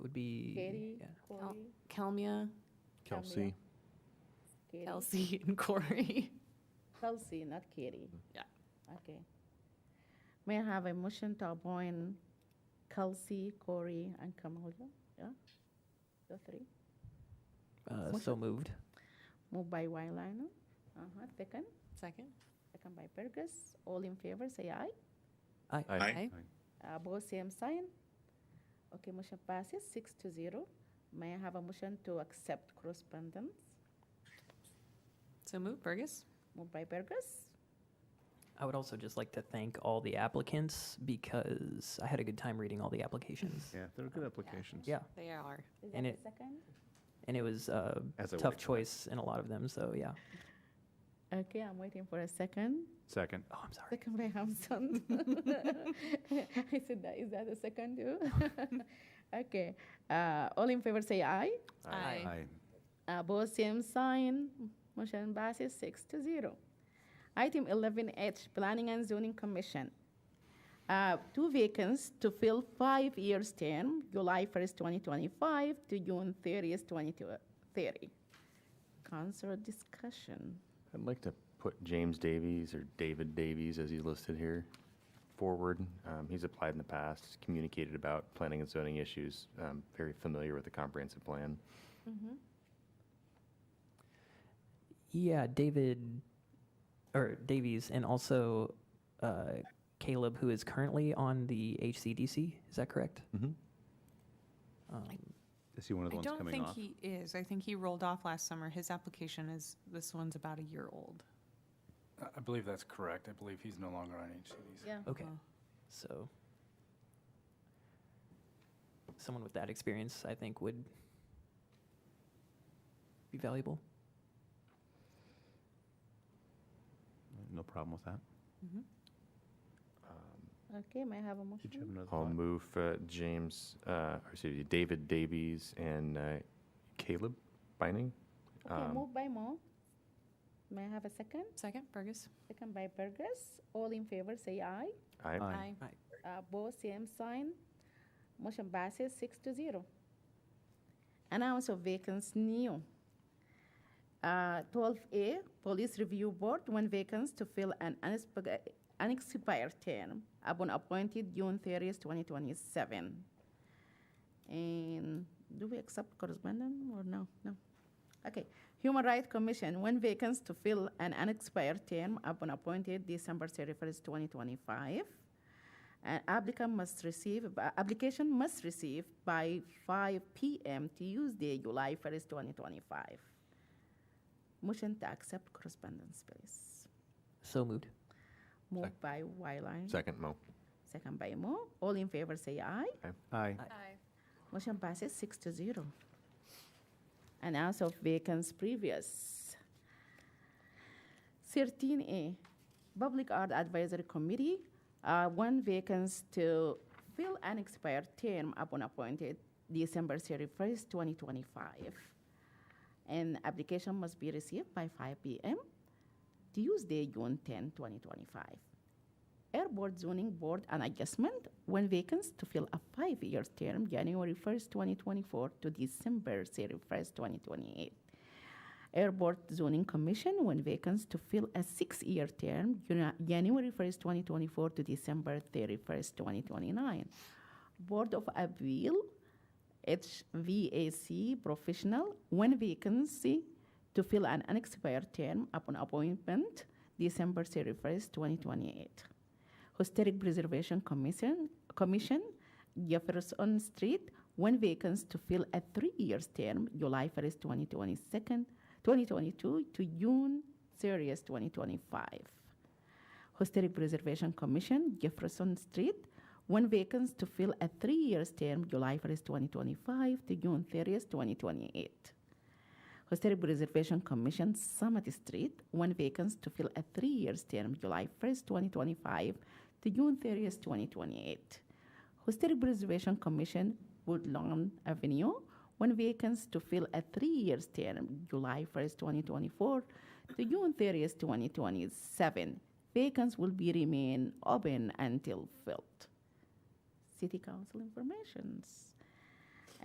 would be. Katie, yeah. Corey, Oh, Kelmia, Kelsey. Kelsey. Katie. Kelsey, and Corey. Kelsey, not Katie. Yeah. Okay. May I have a motion to appoint Kelsey, Corey, and Kamala? Yeah? The three. Uh, so moved. Moved by Wylano. Uh-huh, second. Second. Second by Burgess. All in favor, say aye. Aye. Uh, Both same sign. Okay, motion passes six to zero. May I have a motion to accept correspondence? So move, Burgess. Moved by Burgess. I would also just like to thank all the applicants because I had a good time reading all the applications. Yeah, they're good applications. Yeah, They are. Is And that the it- second? and it was a As I would tough expect. choice in a lot of them, so yeah. Okay, I'm waiting for a second. Second. Oh, I'm sorry. Second by Hamson. I said that, is that the second too? Okay, uh, all in favor say aye. Aye. Uh, both same sign, motion passes six to zero. Item eleven H, Planning and Zoning Commission. Uh, two vacants to fill five years term, July first, twenty twenty-five to June thirtieth, twenty thirty. Council discussion. I'd like to put James Davies or David Davies, as he's listed here, forward. Um, He's applied in the past, communicated about planning and zoning issues, um, very familiar with the comprehensive plan. Yeah, David or Davies, and also uh, Caleb, who is currently on the HCDC. Is that correct? Is he one of the I ones don't coming think off? he is. I think he rolled off last summer. His application is, this one's about a year old. I- I believe that's correct. I believe he's no longer on HCDC. Yeah. Okay. Oh. So, someone with that experience, I think, would be valuable. No problem with that. mm-hmm. Okay, may I have a motion? Did you have another I'll thought? move uh, James, uh, or excuse me, David Davies and uh, Caleb Bining. Okay, Um, moved by Mo. May I have a second? Second, Burgess. Second by Burgess. All in favor, say aye. Aye. Aye. Uh, both same sign. Motion passes six to zero. Announce of vacancies new. Uh, twelve A, Police Review Board, one vacancy to fill an unexpi- unexpired term upon appointed June thirtieth, twenty twenty-seven. And do we accept correspondence or no? No. Okay. Human Rights Commission, one vacancy to fill an unexpired term upon appointed December thirty-first, twenty twenty-five. An applicant must receive, uh, application must receive by 5 PM Tuesday, July 1st, 2025. Motion to accept correspondence, please. So moved. Moved by Wyline, Second, Mo. second by Mo. All in favor, say aye. Aye. Motion passes six to zero. And as of vacancies previous. Thirteen A, Public Art Advisory Committee, uh, one vacancy to fill an expired term upon appointed December thirty-first, twenty twenty-five. And application must be received by five P M, Tuesday, June 10, 2025. Airport Zoning Board an adjustment when vacancy to fill a five-year term, January 1st, 2024 to December 31st, 2028. Airport Zoning Commission when vacancy to fill a six-year term, Janu- January 1st, 2024 to December 31st, 2029. Board of Appeal, HVAC Professional, one vacancy to fill an unexpired term upon appointment, December 31st, 2028. Historic Preservation Commission, Commission, Jefferson Street, one vacancy to fill a three-year term, July 1st, 2022, 2022 to June 30th, 2025. Historic Preservation Commission, Jefferson Street, one vacancy to fill a three-year term, July 1st, 2025 to June 30th, 2028. Historic Preservation Commission, Summit Street, one vacancy to fill a three-year term, July 1st, 2025 to June 30th, 2028. Historic Preservation Commission, Woodlawn Avenue, one vacancy to fill a three-year term, July 1st, 2024 to June 30th, 2027. Vacancies will be remain open until filled. City Council informations.